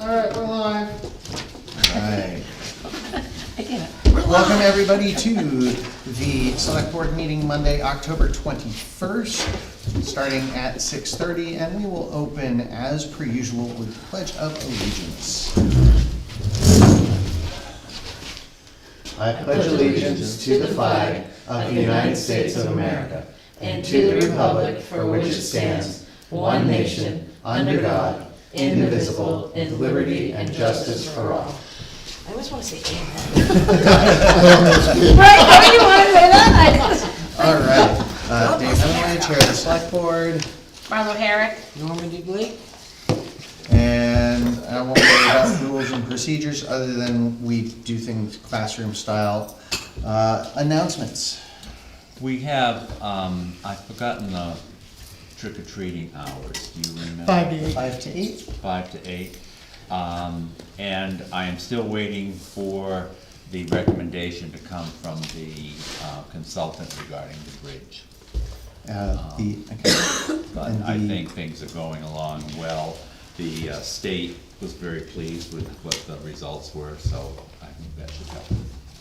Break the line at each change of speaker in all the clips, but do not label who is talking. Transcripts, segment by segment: All right, we're live.
Alright,
I did it.
welcome everybody to the select board meeting Monday, October twenty-first, starting at six thirty, and we will open as per usual with pledge of allegiance.
I pledge allegiance to the flag of the United States of America and to the republic for which it stands, one nation, under God, indivisible, with liberty and justice for all.
I always want to say amen. Right, don't you want to say that?
Alright, uh, Dave Emery, Chair of the Select Board,
Marlo Herrick.
and I won't worry about rules and procedures, other than we do things classroom style. Uh, announcements.
We have, um, I've forgotten the trick or treating hours, do you remember?
Five to eight.
Five to eight.
Five to eight. Um, and I am still waiting for the recommendation to come from the uh, consultant regarding the bridge.
Uh, the, okay.
But
And
I
the-
think things are going along well. The uh, state was very pleased with what the results were, so I think that should help.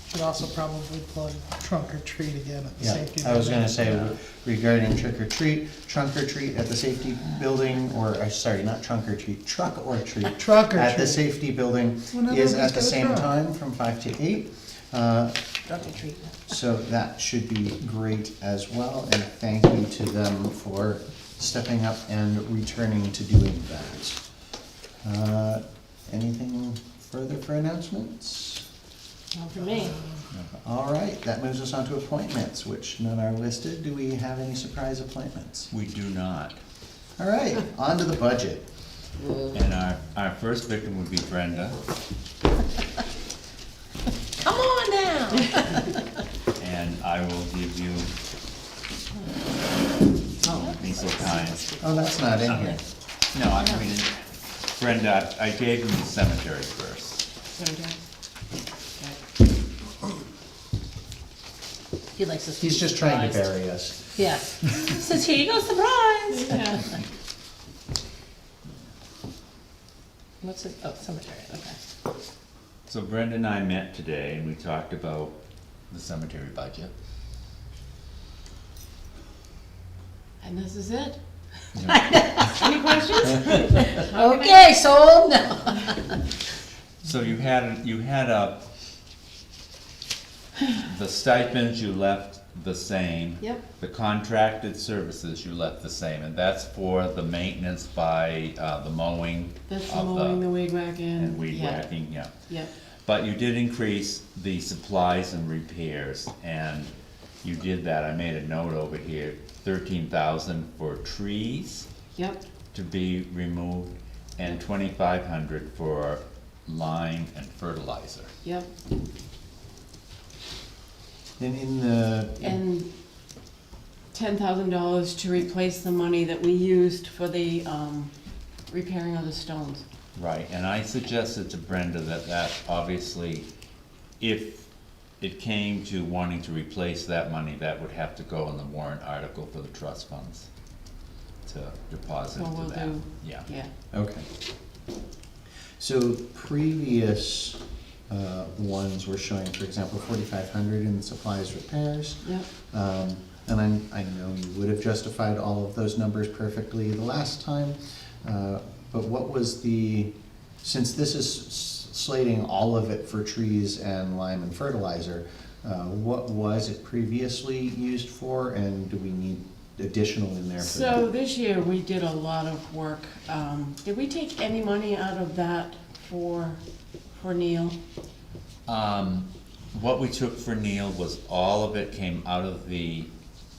Should also probably plug trunk or treat again at the
Yeah,
safety.
I was
building.
gonna say regarding trick or treat, trunk or treat at the safety building, or, uh, sorry, not trunk or treat, truck or treat.
Truck or
At the
treat.
safety building
Well, now
is
nobody's
at
got a
the same
truck.
time from five to eight. Uh,
Drug and treat.
So that should be great as well, and thank you to them for stepping up and returning to doing that. Uh, Anything further for announcements?
Not for me.
All right, that moves us on to appointments, which none are listed. Do we have any surprise appointments?
We do not.
All right, on to the budget.
And our, our first victim would be Brenda,
Come on down.
and I will give you, oh, be so kind.
Oh, that's not in here.
No, I mean, Brenda, I gave him the cemetery first.
He likes us. to
He's
be
just trying to
surprised.
bury us.
Yeah. Says, here you go, surprise. What's it, oh, cemetery, okay.
So Brenda and I met today and we talked about the cemetery budget.
And this is it?
Yeah.
Any questions? Okay, sold, no.
So you had, you had a, the stipends you left the same.
Yep.
The contracted services you left the same, and that's for the maintenance by, uh, the mowing
That's the
of
mowing, the
the,
weed whacking.
uh, and weed
yeah,
whacking, yeah.
Yep,
But you did increase the supplies and repairs, and you did that, I made a note over here, thirteen thousand for trees
yep,
to be removed, and twenty-five hundred for lime and fertilizer.
yep.
And in the,
And ten thousand dollars to replace the money that we used for the, um, repairing of the stones.
Right, and I suggested to Brenda that that, obviously, if it came to wanting to replace that money, that would have to go in the warrant article for the trust funds to deposit
Well, we'll
to that,
do-
yeah.
Yeah,
okay. So previous uh, ones were showing, for example, forty-five hundred in supplies repairs.
yep,
Um, And I'm- I, I know you would have justified all of those numbers perfectly the last time, uh, but what was the, since this is s- slating all of it for trees and lime and fertilizer, uh, what was it previously used for, and do we need additional in there for
So
that?
this year, we did a lot of work. Um, did we take any money out of that for, for Neil?
Um, what we took for Neil was all of it came out of the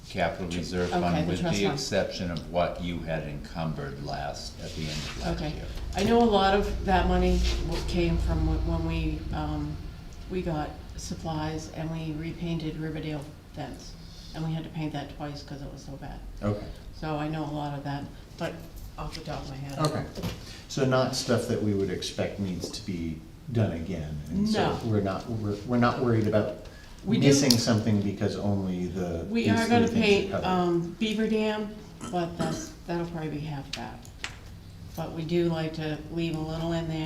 capital reserve
okay,
fund,
the
with
trust
the
fund.
exception of what you had encumbered last, at the end of last
Okay,
year.
I know a lot of that money w- came from wh- when we, um, we got supplies and we repainted Riverdale fence. And we had to paint that twice because it was so bad.
Okay,
So I know a lot of that, but off the top of my head.
okay. So not stuff that we would expect needs to be done again? and so
No.
We're not, we're, we're not worried about
We do-
missing something because only the.
We
these
are
three
gonna
things
paint,
covered.
um, Beaver Dam, but that's, that'll probably be half that. But we do like to leave a little in there